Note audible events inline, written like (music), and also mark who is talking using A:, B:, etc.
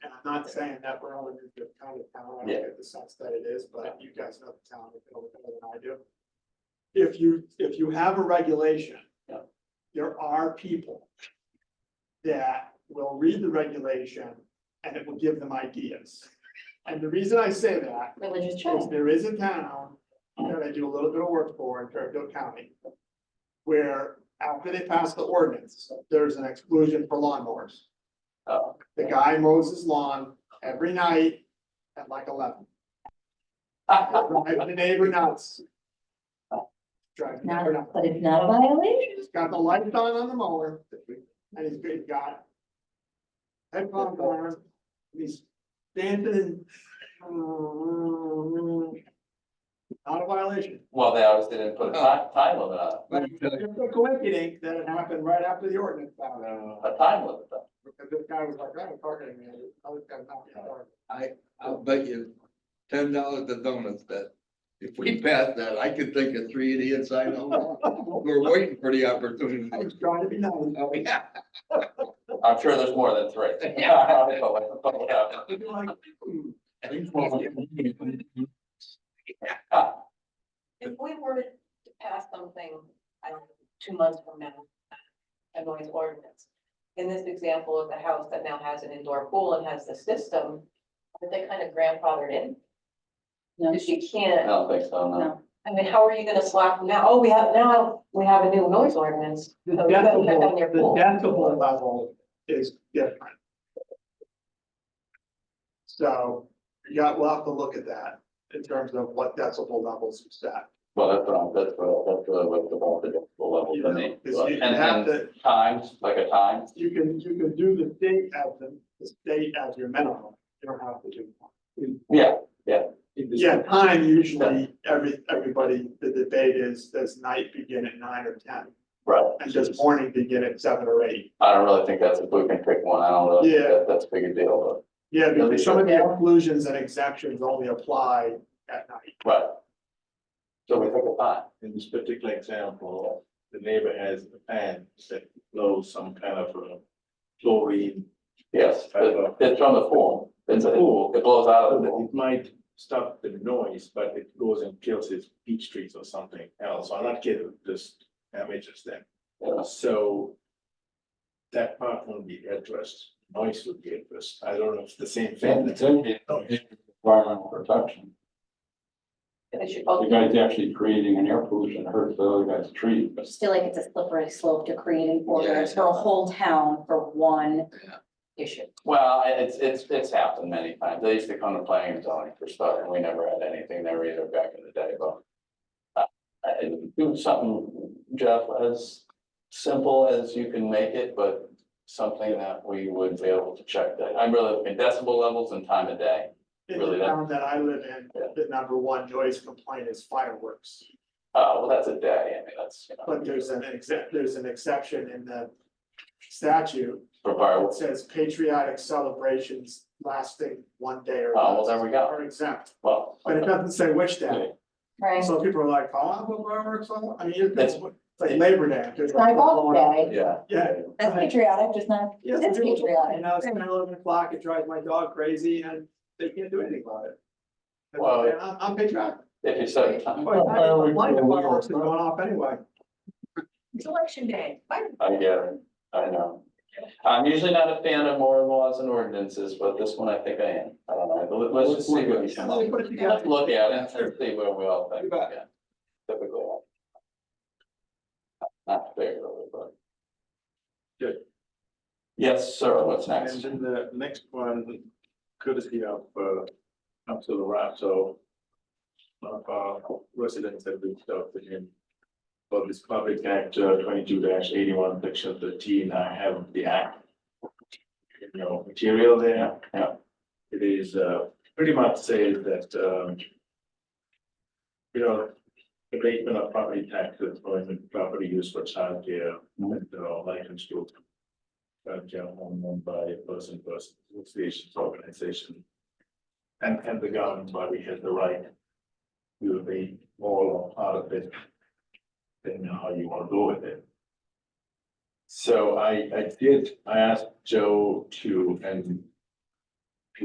A: not saying that we're only moving to town to town, I
B: Yeah.
A: don't get the sense that it is, but you guys know the town a little better than I do. If you, if you have a regulation.
B: Yeah.
A: There are people. That will read the regulation and it will give them ideas. And the reason I say that
C: Religious
A: is
C: children.
A: there is a town that I do a little bit of work for in Fairfield County. Where after they pass the ordinance, there's an exclusion for lawnmowers.
B: Oh,
A: The guy mows his lawn every night at like eleven. Drive The neighbor nuts. Drive the neighbor
C: Not,
A: nuts.
C: but it's not a violation.
A: He's got the lights on on the mower and he's been got. Headphones on, and he's dancing. Not a violation.
B: Well, they obviously didn't put a time, time limit on it,
A: But it's just a coincidence that it happened right after the ordinance found out.
B: a time limit though.
A: Because this guy was like, I'm targeting me. I was gonna knock you out.
D: I'll bet you ten dollars to donuts that if we pass that, I could think of three idiots I know. We're waiting for the opportunity.
A: I was trying to be nice.
D: (laughs) Oh, yeah.
B: I'm sure there's more than three. (laughs) But- but whatever.
A: I'd be like, "Hmm."
C: If we were to pass something, I don't know, two months from now, a noise ordinance. In this example of the house that now has an indoor pool and has the system, are they kind of grandfathered in?
E: No.
C: Because you
B: I
C: can't,
B: don't think so, no.
E: No,
C: I mean, how are you gonna slap them now? Oh, we have, now we have a new noise ordinance.
A: The
C: So you better cut down
A: decibel,
C: your
A: the
C: pool.
A: decibel level is different. So, yeah, we'll have to look at that in terms of what decibel levels you set.
B: Well, that's what I'm, that's what, that's really what the ball, the level,
A: You
B: the
A: know,
B: name.
A: 'cause you
B: And,
A: have
B: and
A: to,
B: times, like a time,
A: you can, you can do the state as the, the state as your minimum, you don't have to do. one.
B: yeah,
A: Yeah, time usually, every, everybody, the debate is, does night begin at nine or ten?
B: right.
A: And does morning begin at seven or eight?
B: I don't really think that's, if we can pick one, I don't really think
A: Yeah.
B: that, that's a big deal,
A: Yeah, because some of the
C: Yeah.
A: exclusions and exemptions only apply at night.
B: but, right. So we took a time,
F: in this particular example, the neighbor has a fan that blows some kind of a chlorine.
B: yes, it- it's from the form, it's a pool, it blows out of the pool.
F: It might stop the noise, but it goes and kills his peach trees or something else. I'm not kidding, just damages them.
B: Yeah.
F: So that part won't be addressed. Noise would be addressed. I don't know if it's the same
G: Then
F: thing.
G: the third is environmental protection.
C: They should
G: The
C: both be
G: guy's actually creating an air pollution that hurts the other guy's trees, but
E: I just feel like it's a slippery slope to creating orders for a whole town for one issue.
B: Well, I- it's, it's, it's happened many times. They used to come to planning and zoning for stuff and we never had anything there either back in the day, but. uh, I- Do something, Jeff, as simple as you can make it, but something that we would be able to check that. I'm really looking at decibel levels and time of day.
A: In the
B: Really, that-
A: town that I live in,
B: Yeah.
A: the number one noise complaint is fireworks.
B: Uh, well, that's a day. I mean, that's, you know,
A: But there's an except, there's an exception in the statute
B: for
A: that
B: fireworks.
A: says patriotic celebrations lasting one day or
B: Oh, well,
A: less
B: there we go.
A: are exempt,
B: Well.
A: but it doesn't say which day.
C: Right.
A: So people are like, oh, I put fireworks on, I mean, you're- it's
B: That's-
A: like Labor Day. there's like-
C: Sidewalk day.
B: Yeah.
A: Yeah.
E: That's
A: Right.
E: patriotic, just not,
A: Yes,
E: that's
A: it is. And
E: patriotic.
A: now it's ten, eleven o'clock, it drives my dog crazy and they can't do anything about it. And
B: Well-
A: I'm, I'm patriotic.
B: If you set a time,
A: Well, I don't like the fireworks that are going off anyway.
C: It's election day. Bye.
B: I get it. I know. I'm usually not a fan of more laws and ordinances, but this one I think I am. I don't know. Let- Let's just see what we
A: Yeah, let me
B: can.
A: put it together.
B: Let's look at it
A: Sure.
B: and see where we all
A: You
B: think.
A: bet.
B: yeah. Typically. Not fair, really, but.
F: Good.
B: Yes, sir. What's
F: And
B: next?
F: then the next one, courtesy of, uh, Council Rato. One of our residents had reached out to him. For this public act uh, twenty-two eighty-one, section thirteen, I have the act. You know, material there, yeah. It is, uh, pretty much says that, um. You know, abatement of property taxes, employment, property use for childcare, and, uh, license to uh, general home owned by a person, person, association, organization. And, and the governing body has the right to be all or part of it, depending on how you want to go with it. So I, I did, I asked Joe to, and